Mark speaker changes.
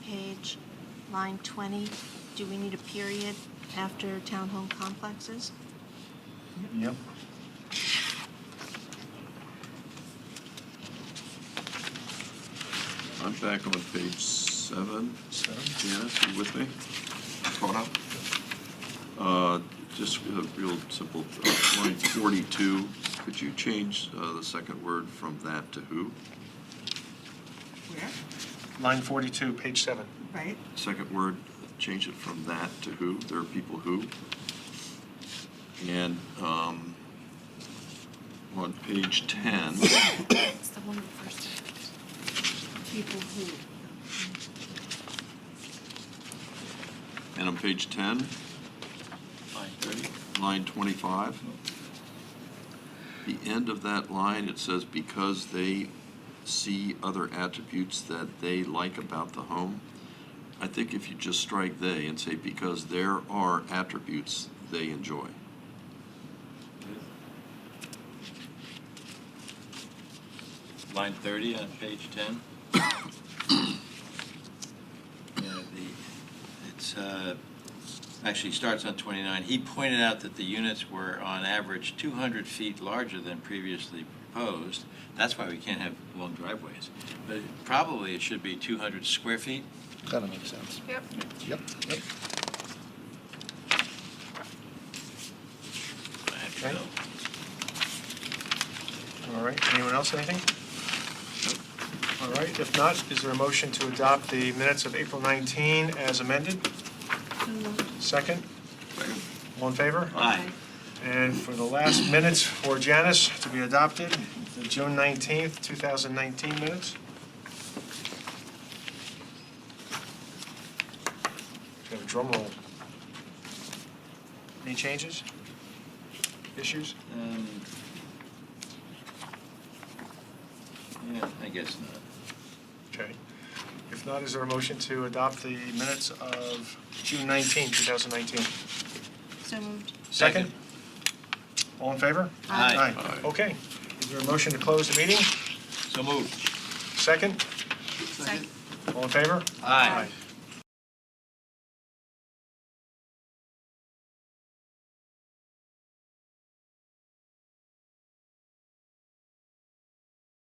Speaker 1: line 20, do we need a period after townhome complexes?
Speaker 2: Yep.
Speaker 3: I'm back on page seven.
Speaker 2: Seven.
Speaker 3: Janice, you with me? Caught up? Uh, Just a real simple, uh, line 42, could you change uh, the second word from that to who?
Speaker 4: Where?
Speaker 2: Line 42, page seven.
Speaker 4: Right?
Speaker 3: Second word, change it from that to who, there are people who. And um, on page 10,
Speaker 1: It's the one first.
Speaker 4: People who.
Speaker 3: and on page 10, ready? line 25, the end of that line, it says, because they see other attributes that they like about the home. I think if you just strike "they" and say, because there are attributes they enjoy.
Speaker 5: Line 30 on page 10. Yeah, the- It's, uh, actually starts on 29. He pointed out that the units were on average 200 feet larger than previously proposed. That's why we can't have long driveways. But it- probably it should be 200 square feet.
Speaker 6: Kind of makes sense.
Speaker 4: Yep.
Speaker 6: Yep. Yep.
Speaker 5: I have to
Speaker 2: Okay.
Speaker 5: go.
Speaker 2: All right, anyone else, anything? All right, if not, is there a motion to adopt the minutes of April 19 as amended? Second?
Speaker 3: Second.
Speaker 2: All in favor?
Speaker 5: Aye.
Speaker 2: And for the last minutes for Janice to be adopted, the June 19th, 2019 minutes. We Have a drum roll. Any changes? Issues?
Speaker 5: Um, Yeah, I guess not.
Speaker 2: Okay. If not, is there a motion to adopt the minutes of June 19, 2019?
Speaker 1: So moved.
Speaker 2: Second? All in favor?
Speaker 5: Aye.
Speaker 3: Aye.
Speaker 2: Okay. Is there a motion to close the meeting?
Speaker 5: So moved.
Speaker 2: Second?
Speaker 1: Second.
Speaker 2: All in favor?
Speaker 5: Aye.